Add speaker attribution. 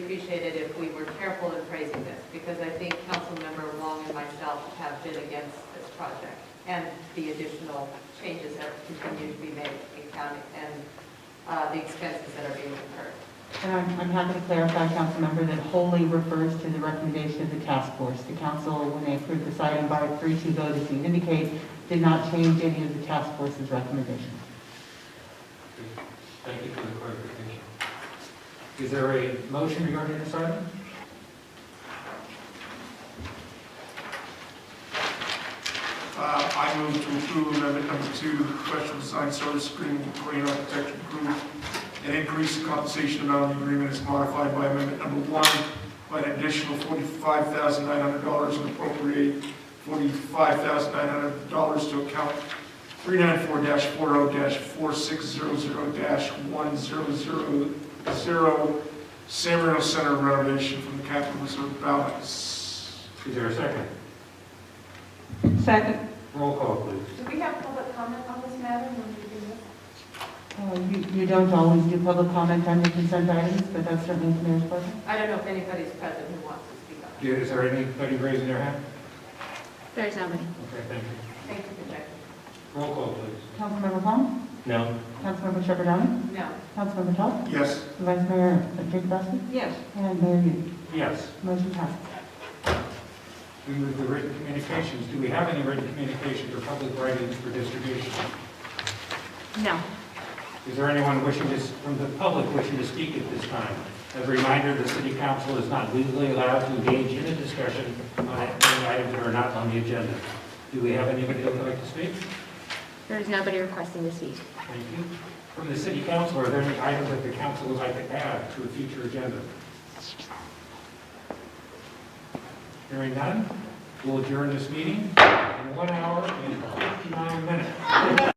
Speaker 1: appreciate it if we were careful in phrasing this, because I think Councilmember Long and myself have been against this project, and the additional changes that continue to be made in county, and uh, the expenses that are being incurred.
Speaker 2: And I'm, I'm happy to clarify, Councilmember, that wholly refers to the recommendation of the task force. The council, when they approved this item by a three-two vote, as you indicate, did not change any of the task force's recommendations.
Speaker 3: Thank you for the clarification. Is there a motion regarding this item?
Speaker 4: Uh, I move to approve Amendment Number Two, professional design service agreement with Korean Architecture Group, and increase the compensation amount of the agreement as modified by Amendment Number One by an additional forty-five thousand nine hundred dollars and appropriate forty-five thousand nine hundred dollars to account three nine four four oh four six zero zero one zero zero zero San Marino Center renovation from the capital reserve balance.
Speaker 3: Is there a second?
Speaker 2: Second.
Speaker 3: Roll call, please.
Speaker 1: Do we have public comment on this matter when we do this?
Speaker 2: Uh, You, you don't always do public comment on your consent items, but that's certainly the mayor's pleasure.
Speaker 1: I don't know if anybody's present who wants to speak on it.
Speaker 3: Yeah, Is there anybody raising their hand?
Speaker 5: There's nobody.
Speaker 3: Okay, thank you.
Speaker 1: Thank you for checking.
Speaker 3: Roll call, please.
Speaker 2: Councilmember Hong,
Speaker 3: No.
Speaker 2: Councilmember Shepherd Downing,
Speaker 1: No.
Speaker 2: Councilmember Toth,
Speaker 4: Yes.
Speaker 2: Vice Mayor Jacobowski,
Speaker 1: Yes.
Speaker 2: and Mayor Hughes.
Speaker 3: Yes.
Speaker 2: Motion passed.
Speaker 3: We move to written communications. Do we have any written communications or public writings for distribution?
Speaker 5: No.
Speaker 3: Is there anyone wishing to, from the public wishing to speak at this time? As a reminder, the city council is not legally allowed to engage in a discussion on any items that are not on the agenda. Do we have anybody that would like to speak?
Speaker 5: There's nobody requesting to speak.
Speaker 3: Thank you. From the city council, are there any items that the council would like to add to a future agenda? Hearing none, we'll adjourn this meeting in one hour and 59 minutes.